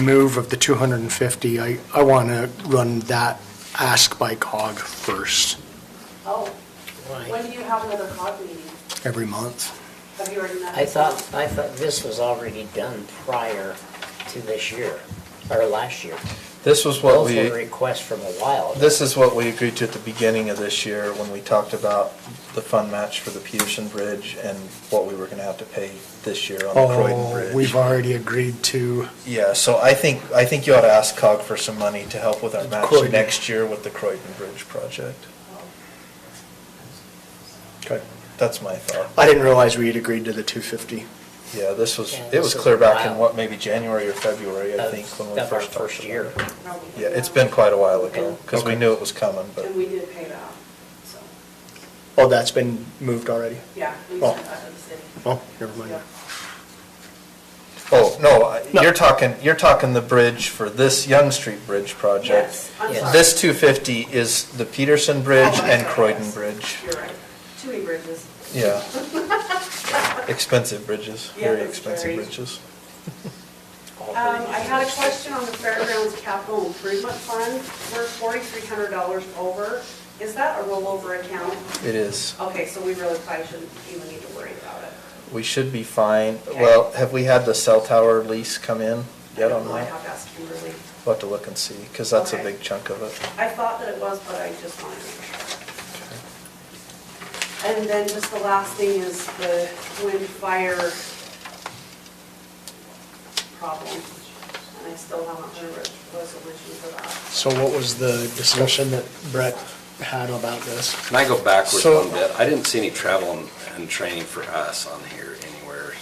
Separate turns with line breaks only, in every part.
move of the 250, I, I want to run that ask by cog first,
Oh, when do you have another COG meeting?
every month.
Have you already met?
I thought, I thought this was already done prior to this year, or last year.
This was what
Both were
we,
requests from a while. ago.
this is what we agreed to at the beginning of this year when we talked about the fund match for the Peterson Bridge and what we were gonna have to pay this year on the Croydon
Oh,
Bridge.
we've already agreed to,
Yeah, so I think, I think you ought to ask COG for some money to help with our match
Croydon.
next year with the Croydon Bridge project.
Oh,
Okay, that's my thought.
I didn't realize we had agreed to the 250.
Yeah, this was,
Yeah,
it
this
was
is
clear back in
wild.
what, maybe January or February, I
Of-
think, when we
of our
first talked
first
about
year.
it.
No, we
Yeah,
didn't.
it's been quite a while ago, because we
Okay.
knew it was coming, but.
And we did pay it off, so,
Oh, that's been moved already?
yeah, we
Oh.
sent that to the city.
Oh, never mind.
Yeah.
Oh, no, I-
No.
you're talking, you're talking the bridge for this Young Street Bridge project.
Yes, I'm
Yes.
sorry.
This 250 is the Peterson Bridge
Oh, I'm
and
sorry,
Croydon
yes.
Bridge.
You're right, too many bridges.
Yeah. Expensive bridges,
Yeah,
very
that's
expensive
very-
bridges.
All
Um, I had a
reasons.
question on the Fairgrounds Capital Improvement Fund, we're forty-three hundred dollars over, is that a rollover account?
It is.
Okay, so we really probably shouldn't even need to worry about it.
We should be fine.
Okay.
Well, have we had the cell tower lease come in
I
yet
don't
on
know, I
that?
have to ask Kimberly.
We'll have to look and see, because that's a
Okay.
big chunk of it.
I thought that it was, but I just wanted to make sure. And then just the last thing is the wind fire problem. And I still haven't heard a resolution for that.
So what was the discussion that Brett had about this?
Can I go backwards
So-
one bit? I didn't see any travel and, and training for us on here anywhere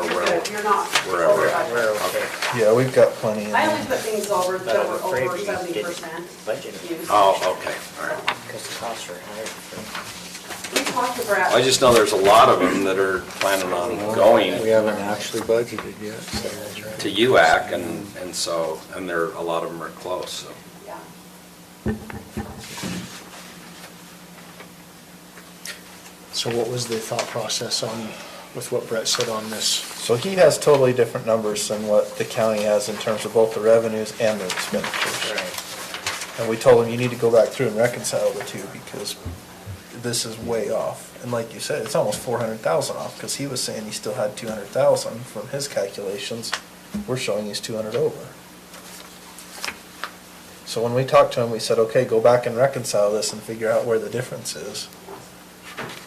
or
You're
wherever.
good, You're not.
Wherever.
over budget.
Okay.
Yeah, we've got plenty in
I only
there.
put things over
But
that
I'm
were
afraid
over
we
seventy
didn't
percent.
budget it.
Oh, okay, all right.
Because the costs are higher for
We talked to Brad.
I just know there's a lot of them that are planning on
We
going
haven't actually budgeted yet, so that's right.
to UAC and, and so, and there, a lot of them are close, so.
Yeah.
So what was the thought process on, with what Brett said on this?
So he has totally different numbers than what the county has in terms of both the revenues and the expenditures. And we told him, you need to go back through and reconcile the two because this is way off. And like you said, it's almost four hundred thousand off because he was saying he still had two hundred thousand from his calculations. We're showing he's two hundred over. So when we talked to him, we said, okay, go back and reconcile this and figure out where the difference is.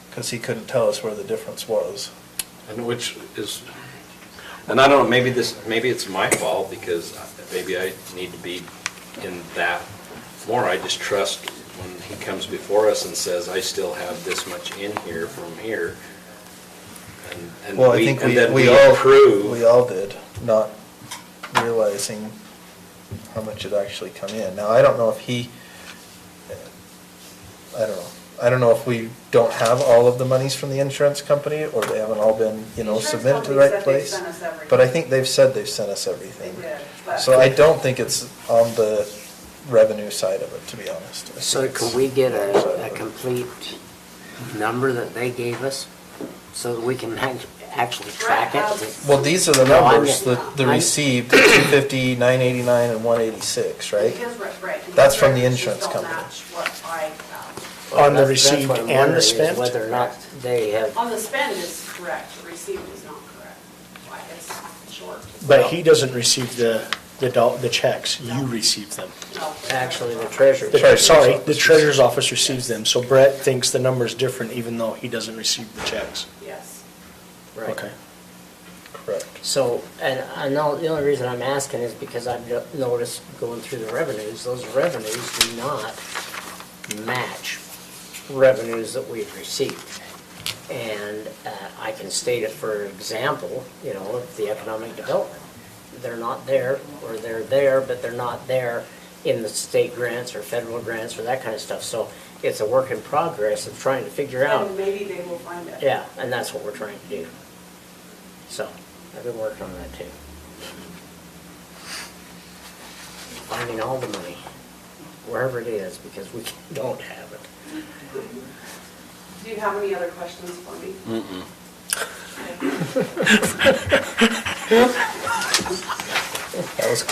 Because he couldn't tell us where the difference was.
And which is, and I don't know, maybe this, maybe it's my fault because maybe I need to be in that more. I just trust when he comes before us and says, I still have this much in here from here. and- and
Well, I
we-
think
and
we,
then
we all,
approve.
we all did, not realizing how much it actually come in. Now, I don't know if he, I don't know, I don't know if we don't have all of the monies from the insurance company, or they haven't all been, you know,
Insurance
submitted to the
company
right
said they've
place.
sent us everything.
But I think they've said they've sent us everything.
They did, but-
So I don't think it's on the revenue side of it, to be honest. I think
So
it's-
can we get a, a complete number that they gave us so that we can act- actually track it?
Well, these are the
No, I
numbers,
get-
the, the
I-
received, 250, 989, and 186, right?
His re- right, and
That's
his
from the
records just
insurance
don't
company.
match what I um, have.
On the
That's- that's
received
what I'm
and
wondering
the
is
spent?
Whether or not they have,
On the spend is correct, the received is not correct. Why, it's short.
But he doesn't receive the, the, dol- the checks, you receive them.
No.
actually the treasurer.
The-
treasurer's
Sorry, the
office.
treasurer's office receives them, so Brett thinks the number's different even though he doesn't receive the checks.
Yes.
Right.
Okay.
Correct.
So, and I know, the only reason I'm asking is because I've no- noticed going through the revenues, those revenues do not match revenues that we've received. And uh, I can state it, for example, you know, of the economic development. They're not there, or they're there, but they're not there in the state grants or federal grants or that kind of stuff. So it's a work in progress of trying to figure out.
And maybe they will find it.
Yeah, and that's what we're trying to do. So, I've been working on that too. Finding all the money, wherever it is, because we don't have it.
Do you have any other questions for me? Okay.
That was